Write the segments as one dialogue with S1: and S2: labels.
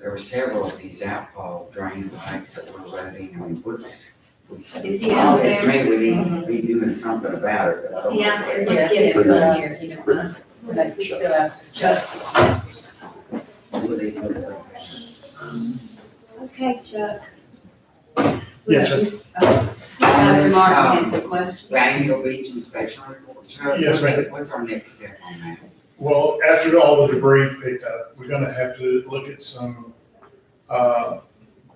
S1: there were several of these outfall drain pipes that were running and we.
S2: Is he out there?
S1: Estimated we need, be doing something about it, but I
S2: Is
S1: don't.
S2: he out there?
S3: Yeah.
S2: Let's get his one here, if you don't mind.
S3: But he's still out.
S2: Chuck.
S1: Who are these other
S2: Okay, Chuck.
S4: Yes, sir.
S2: Supervisor Martin has a question.
S1: The annual beach inspection report, Chuck?
S4: Yes, ma'am.
S1: What's our next step on that?
S4: Well, after all the debris picked up, we're gonna have to look at some, uh,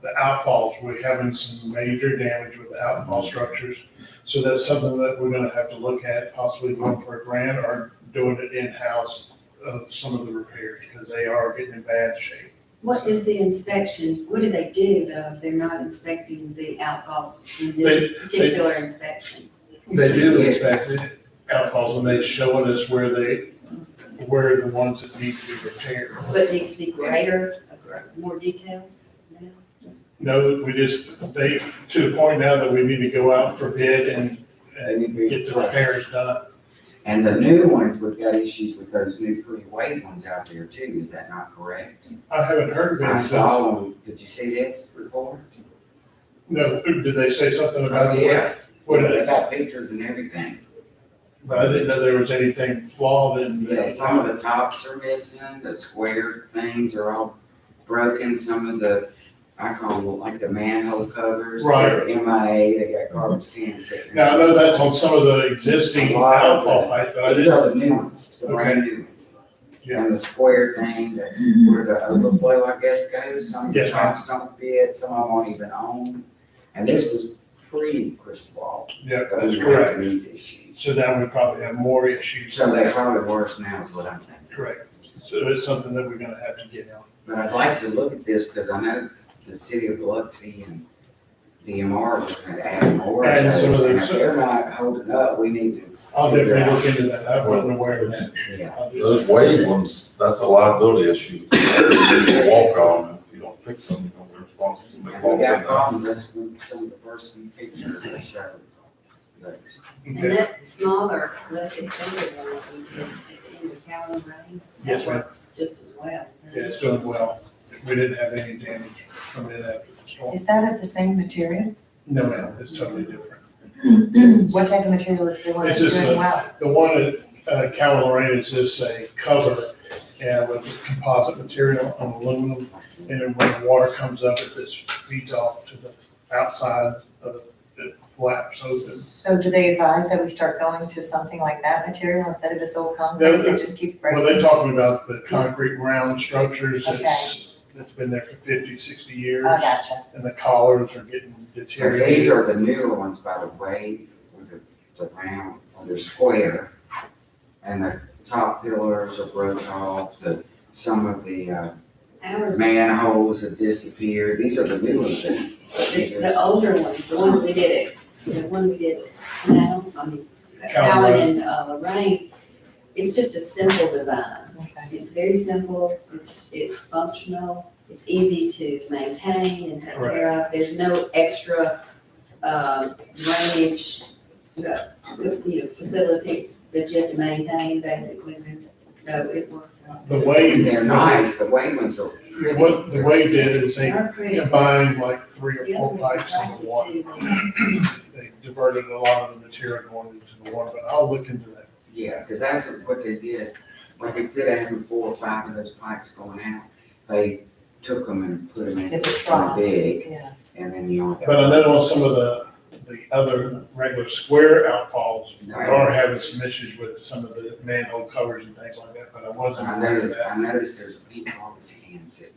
S4: the outfalls. We're having some major damage with the outfall structures. So that's something that we're gonna have to look at, possibly going for a grant or doing it in-house of some of the repairs, because they are getting in bad shape.
S2: What is the inspection? What do they do though if they're not inspecting the outfalls in this particular inspection?
S4: They do inspect it, outfalls, and they showing us where they, where the ones that need to be repaired.
S2: What needs to be greater, more detail? No?
S4: No, we just, they, to the point now that we need to go out for bid and, and Uh, get the repairs done.
S1: And the new ones, we've got issues with those new pretty white ones out there too, is that not correct?
S4: I haven't heard of
S1: I
S4: it, so,
S1: saw, them. did you see this report?
S4: no, did they say something about
S1: Oh, yeah.
S4: the, what,
S1: They got pictures and everything.
S4: but I didn't know there was anything flawed in
S1: Yeah, some
S4: that.
S1: of the tops are missing, the square things are all broken, some of the, I call them like the manhole covers. they're MIA, they got garbage cans sitting.
S4: Now, Mhm. I know that's on some of the existing outfall pipe, but I
S1: These
S4: didn't,
S1: are the new ones, the brand new ones.
S4: Yeah.
S1: And the square thing, that's where the overflow, I guess, goes, some of the
S4: Yes, ma'am.
S1: tops don't fit, some of them aren't even on. And this was pre-Cristobal,
S4: yeah, that's
S1: those were
S4: correct.
S1: these issues.
S4: So that would probably have more issues,
S1: So they're probably worse now is what I'm thinking.
S4: correct. So it's something that we're gonna have to get on.
S1: But I'd like to look at this because I know the city of Biloxi and DMR are gonna add more of
S4: And some of
S1: those. And if
S4: those-
S1: they're not holding up, we need to,
S4: I'll definitely look into that, I wasn't aware of that.
S1: yeah.
S4: I'll do
S5: Those
S4: that.
S5: wave ones, that's a liability issue. People walk on, if you don't fix them, they're responsible.
S1: We
S5: somebody walks
S1: got
S5: in there.
S1: problems, that's when some of the first few pictures that show those.
S2: And
S4: Okay.
S2: that smaller, less expensive one that we did at the end of Calhoun Lane? that
S4: Yes, ma'am.
S2: works Just as well.
S4: Yeah, it's doing well. We didn't have any damage from it after the storm.
S3: Is that of the same material?
S4: No, no, it's totally different.
S3: What type of material is the one that's
S4: It's just a-
S3: doing well?
S4: The one at uh, Cal Lorraine is just a cover and with composite material on aluminum. And then when the water comes up, it just feeds off to the outside of the flap. So the-
S3: So do they advise that we start going to something like that material instead of just old concrete
S4: Yeah,
S3: that just keeps
S4: well,
S3: breaking?
S4: they're talking about the concrete round structures
S3: Okay.
S4: that's, that's been there for 50, 60 years.
S3: I Oh, gotcha.
S4: And the collars are getting
S1: Because
S4: deteriorated.
S1: these are the newer ones, by the way, with the, the round, or they're square. And the top pillars are broken off, the, some of the, uh,
S2: Ours, the,
S1: manholes have disappeared, these are the new ones that.
S2: the older ones, the ones we did it, the one we did now, I mean,
S4: Calhoun.
S2: Calhoun and uh, Lorraine, it's just a simple design.
S3: Okay.
S2: It's very simple, it's, it's functional, it's easy to maintain and take care of. There's no extra, um, drainage, uh, you know, facility that you have to maintain basically. So it works out.
S4: The way.
S1: They're nice, the white ones are. pretty.
S4: What the way did is they
S2: They're pretty.
S4: combined like three or
S2: The
S4: four
S2: others are
S4: pipes in the water.
S2: attracted to them.
S4: They diverted a lot of the material going into the water, but I'll look into that.
S1: Yeah, because that's what they did, like instead of having four or five of those pipes going out, they took them and put them in,
S3: Did the
S1: kind
S3: trial.
S1: big,
S3: Yeah.
S1: and then you only got.
S4: But I know on some of the, the other regular square outfalls, we are having some issues with some of the manhole covers and things like that, but I wasn't
S1: I
S4: aware of
S1: noticed,
S4: that.
S1: I noticed there's a big garbage can sitting.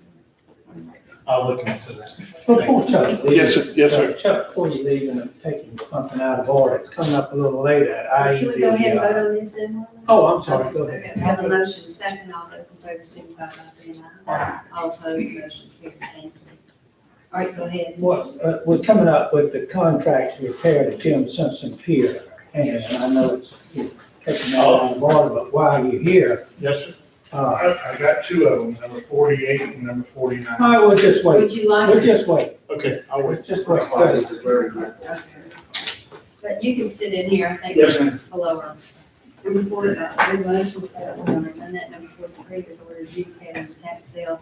S1: on my-
S4: I'll look into that.
S6: Before Chuck leaves.
S4: Yes, sir. Yes, sir.
S6: Chuck, before you leave and I'm taking something out of order, it's coming up a little late at I. uh,
S2: Can we go ahead and vote on this then?
S6: Oh, I'm sorry, go
S2: Okay, we have a
S6: ahead.
S2: motion second, all those in favor signify by saying aye. All opposed, motion carried, thank you. All right, go ahead.
S6: What, uh, we're coming up with the contract to repair the Tim Simpson Pier, and I know it's you're taking that out of order, but while you're here,
S4: Yes, sir.
S6: uh,
S4: I, I got two of them, number forty-eight and number forty-nine.
S6: I will just wait,
S2: Would you like?
S6: we'll just wait,
S4: Okay, I'll wait.
S6: we'll just wait.
S1: Close, 'cause we're in-
S2: But you can sit in here, I think.
S4: Yes, ma'am.
S2: Below her. Number four, uh, the motion second, on amendment number forty-three is ordered adjudicating the tax sale